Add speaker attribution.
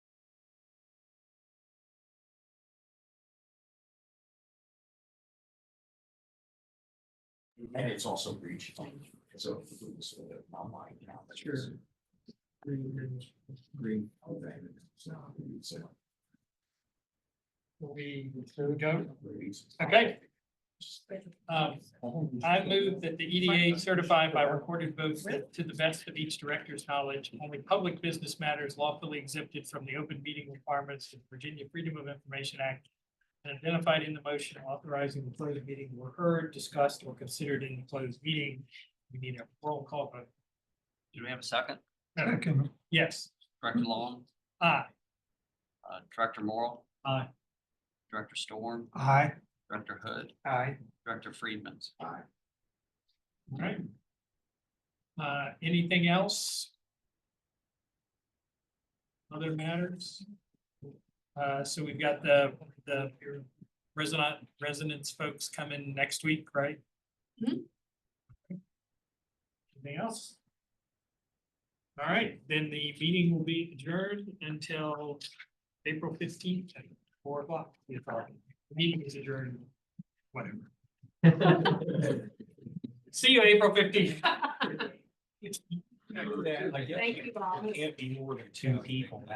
Speaker 1: And it's also reach. So. it's sort of my mind now, but it's-
Speaker 2: Sure. Green
Speaker 1: Green. okay, it's not, it's, uh,
Speaker 2: will be, so we go.
Speaker 1: reach.
Speaker 2: Okay. Um, I move that the E EDA certify by recorded votes that to the best of each director's knowledge, only public business matters lawfully exempted from the open meeting requirements of Virginia Freedom of Information Act and identified in the motion authorizing the closed meeting were heard, discussed, or considered in the closed meeting. We need a roll call vote.
Speaker 3: Do we have a second?
Speaker 2: Yes,
Speaker 3: Director Long,
Speaker 2: aye.
Speaker 3: uh, Director Morrell,
Speaker 2: Aye.
Speaker 3: Director Storm,
Speaker 2: Aye.
Speaker 3: Director Hood,
Speaker 2: Aye.
Speaker 3: Director Friedman.
Speaker 2: All right. Uh, anything else? Other matters? Uh, so we've got the, the resident, residents folks coming next week, right? Anything else? All right, then the meeting will be adjourned until April fifteenth, at four o'clock. if our Meeting is adjourned, whatever. See you April fifteenth.
Speaker 4: Thank you, Bob.
Speaker 2: Can't be more than two people.